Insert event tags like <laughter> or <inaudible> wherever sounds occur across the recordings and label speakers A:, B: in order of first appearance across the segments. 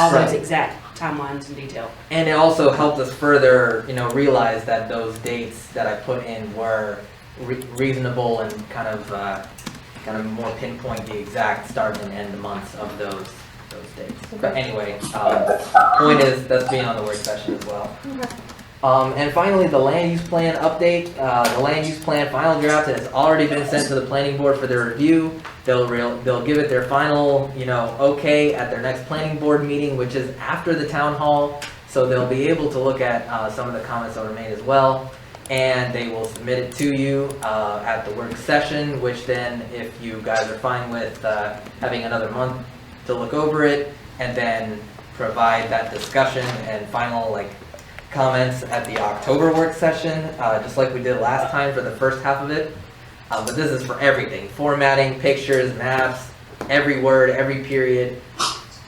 A: all those
B: Right.
A: exact timelines in detail.
B: And it also helped us further, you know, realize that those dates that I put in were re- reasonable and kind of, uh, kind of more pinpoint the exact start and end months of those, those dates. But anyway, um, point is, that's being on the work session as well. Um, and finally, the land use plan update. Uh, the land use plan final draft has already been sent to the planning board for their review. They'll real, they'll give it their final, you know, okay at their next planning board meeting, which is after the town hall. So they'll be able to look at, uh, some of the comments that were made as well. And they will submit it to you, uh, at the work session, which then if you guys are fine with, uh, having another month to look over it and then provide that discussion and final, like, comments at the October work session, uh, just like we did last time for the first half of it. Uh, but this is for everything, formatting, pictures, maps, every word, every period,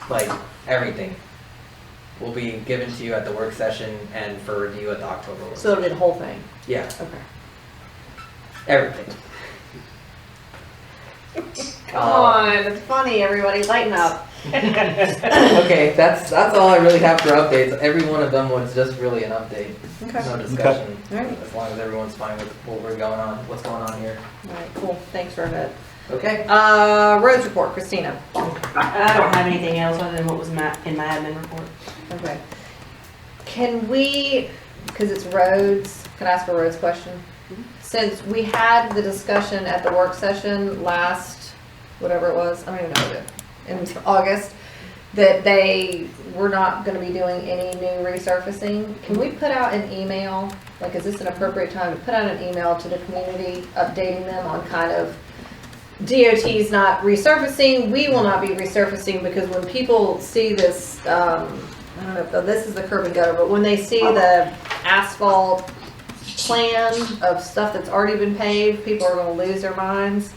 B: like everything will be given to you at the work session and for review at the October work.
C: So it'll be the whole thing,
B: Yeah,
C: okay.
B: everything. Um,
C: it's funny, everybody, lighten up.
B: <coughs> Okay, that's, that's all I really have for updates. Every one of them was just really an update,
C: Okay, all
B: no discussion.
C: Alright.
B: As long as everyone's fine with what we're going on, what's going on here.
C: right, cool, thanks for that.
B: Okay.
C: Uh, roads report, Christina.
A: I don't have anything else other than what was my, in my admin report.
C: Okay. Can we, because it's roads, can I ask a roads question? Since we had the discussion at the work session last, whatever it was, I don't even know, in <laughs> August, that they were not gonna be doing any new resurfacing, can we put out an email? Like, is this an appropriate time to put out an email to the community, updating them on kind of DOT's not resurfacing, we will not be resurfacing, because when people see this, um, I don't know, if the- this is the curb and gutter, but when they see the asphalt plan of stuff that's already been paved, people are gonna lose their minds.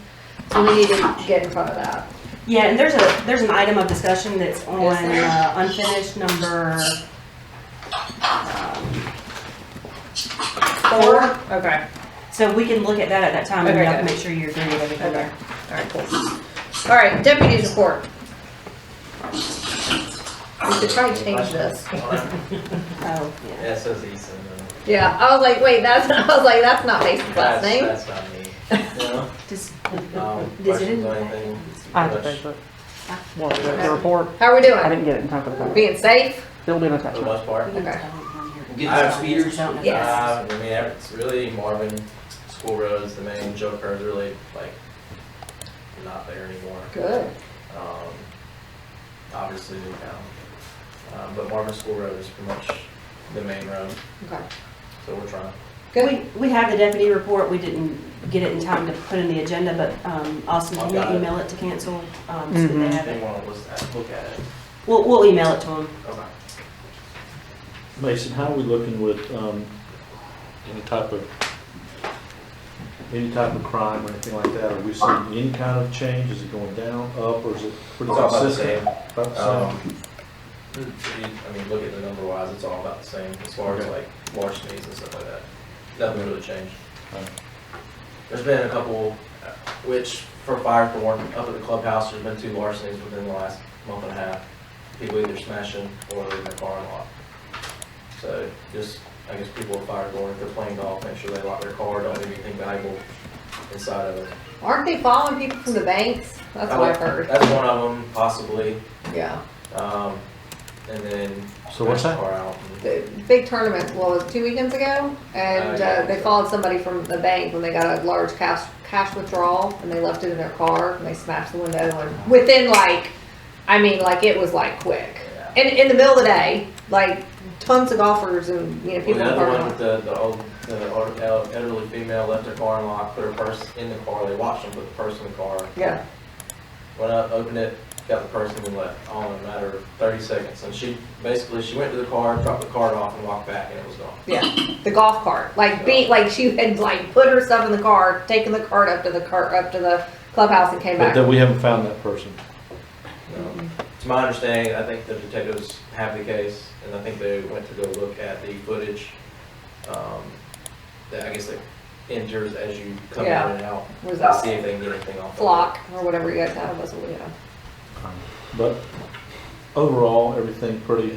C: So we need to get in front of that.
A: Yeah, and there's a, there's an item of discussion that's on
C: Is there?
A: uh, unfinished number um, four.
C: Okay,
A: So we can look at that at that time and
C: Okay,
A: y'all can
C: good.
A: make sure you agree with everything
C: okay,
A: there.
C: alright, cool. Alright, deputies report. We should try and change this.
A: Oh, yeah.
D: S O Z, so no.
C: Yeah, I was like, wait, that's, <laughs> I was like, that's not Mason's last
D: That's-
C: name.
D: That's not me. No?
A: Does,
D: Um,
A: does it?
D: questions or anything?
E: I have to
D: Much-
E: pay for it. Well, the the report,
C: How are we
E: I
C: doing?
E: didn't get it in time for the paper.
C: Being safe?
E: Still doing
D: For the
E: attachment.
D: most part.
C: Okay.
D: Get the
A: speeders.
C: Yes.
D: Uh, I mean, it's really Marvin, School Road's the main, Joe Kerr's really like not there anymore.
C: Good.
D: Um, obviously Newtown. Um, but Marvin School Road is pretty much the main road,
C: Okay,
D: so we're trying.
C: good.
A: We, we have the deputy report, we didn't get it in time to put in the agenda, but, um, Austin, can
D: I've
A: you
D: got it.
A: email it to cancel? Um, so that they
C: Mm-hmm.
E: Mhm.
A: have
D: They
A: it.
D: want to listen, look at it.
A: We'll, we'll email it to them.
D: Okay.
F: Mason, how are we looking with um, any type of, any type of crime or anything like that? Are we seeing any kind of change? Is it going down, up, or is it pretty
D: It's all about the
F: consistent?
D: same.
F: About the
D: Um, I mean, look at the number wise, it's all about the same as far as
F: Okay.
D: like larcenies and stuff like that. Nothing really changed.
F: Alright.
D: There's been a couple, uh, which for fire for one, up at the clubhouse, there's been two larcenies within the last month and a half. People either smashing or leaving their car unlocked. So just, I guess people with fire going, if they're playing golf, make sure they lock their car, don't leave anything valuable inside of it.
C: Aren't they following people from the banks? That's what I've heard.
D: That's one of them possibly.
C: Yeah.
D: Um, and then.
F: So what's
D: smash
F: that?
D: the Car out and-
C: The big tournament, what was it, two weekends ago? And
D: Uh, yeah.
C: uh, they followed somebody from the bank when they got a large cash, cash withdrawal and they left it in their car and they smashed the window and within like, I mean, like it was like quick.
D: Yeah.
C: And in the middle of the day, like tons of golfers and, you know,
D: Well,
C: people.
D: the
C: in the
D: other
C: parking
D: one
C: lot.
D: with the, the old, the old el- elderly female left her car unlocked, put her purse in the car, they watched them put the purse in the car,
C: Yeah,
D: went up, opened it, got the purse and then left, all in a matter of thirty seconds. And she, basically, she went to the car, dropped the card off and walked back and it was gone.
C: yeah, the golf cart, like beat, like she had like put herself in the car, taken the cart up to the car, up to the clubhouse and came
F: But
C: back.
F: that we haven't found that person.
D: Um, To my understanding, I think the detectives have the case and I think they went to go look at the footage, um, that I guess that enters as you come in
C: Yeah.
D: and out,
C: Was
D: to
C: that
D: see if they can get anything off. of it.
C: flock or whatever you guys have, that's what we have.
F: But overall, everything pretty